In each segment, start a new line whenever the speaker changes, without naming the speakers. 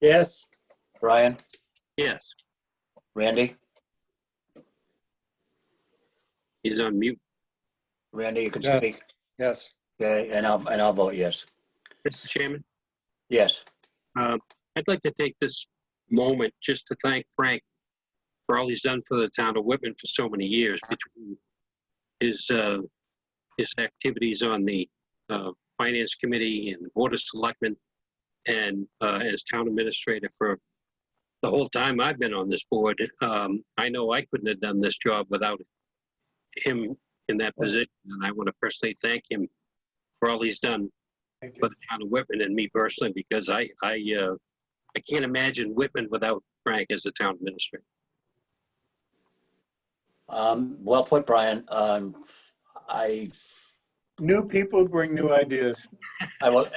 Yes.
Brian,
Yes,
Randy,
he's on mute.
Randy, you can
Yes.
speak.
Yes.
Okay, and I'll, and I'll vote yes.
Mr. Chairman,
Yes,
um, I'd like to take this moment just to thank Frank for all he's done for the town of Whitman for so many years between his, uh, his activities on the uh, Finance Committee and the Board of Selectmen and uh, as town administrator for the whole time I've been on this board. Um, I know I couldn't have done this job without him in that position, and I want to personally thank him for all he's done
Thank
for the town of Whitman and me personally, because I, I, uh, I can't imagine Whitman without Frank as the town administrator.
um, well put, Brian. Um, I,
New people bring new ideas.
I will,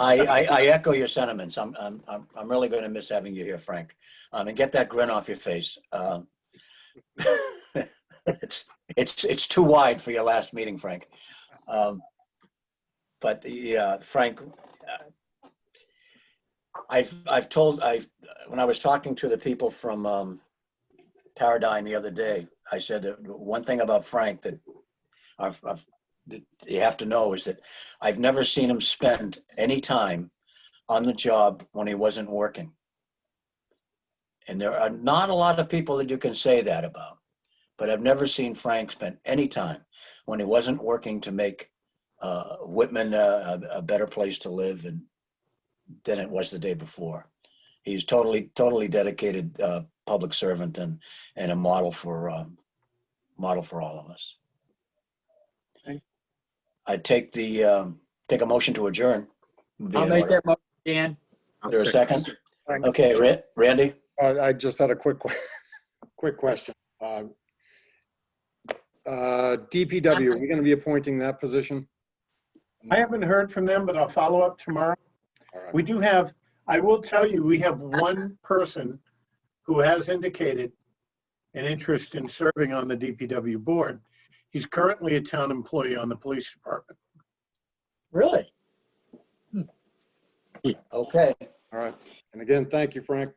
I, I, I echo your sentiments. I'm, I'm, I'm I'm really going to miss having you here, Frank. Um, and get that grin off your face. Um, It's, it's, it's too wide for your last meeting, Frank. Um, But yeah, Frank, uh, I've, I've told, I, when I was talking to the people from, um, Paradigm the other day, I said that one thing about Frank that I've, I've, that you have to know is that I've never seen him spend any time on the job when he wasn't working. And there are not a lot of people that you can say that about, but I've never seen Frank spend any time when he wasn't working to make uh, Whitman a, a a better place to live and than it was the day before. He's totally, totally dedicated uh, public servant and and a model for um, model for all of us. I take the, um, take a motion to adjourn. Would be
I'll
in
make
order.
that motion, Dan.
I'll
Is there a
second.
second? Okay, Ra- Randy,
Uh, I just had a quick, que- quick question. Uh, uh, DPW, are we going to be appointing that position?
I haven't heard from them, but I'll follow up tomorrow.
All right.
We do have, I will tell you, we have one person who has indicated an interest in serving on the DPW board. He's currently a town employee on the police department.
Really?
okay.
All right. And again, thank you, Frank.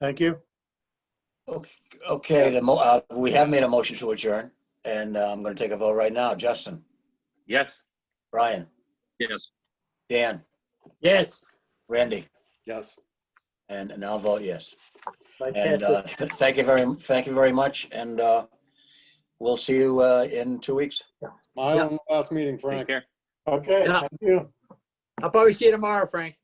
Thank you.
Okay, the, mo- uh, we have made a motion to adjourn, and uh, I'm going to take a vote right now. Justin,
Yes.
Brian,
Yes.
Dan,
Yes.
Randy,
Yes.
and, and I'll vote yes.
Like
And
that's
uh,
it.
th- thank you very, thank you very much, and uh, we'll see you uh, in two weeks.
Smile on the last meeting,
Take
Frank.
care.
Okay,
Yeah.
thank you.
I'll probably see you tomorrow, Frank.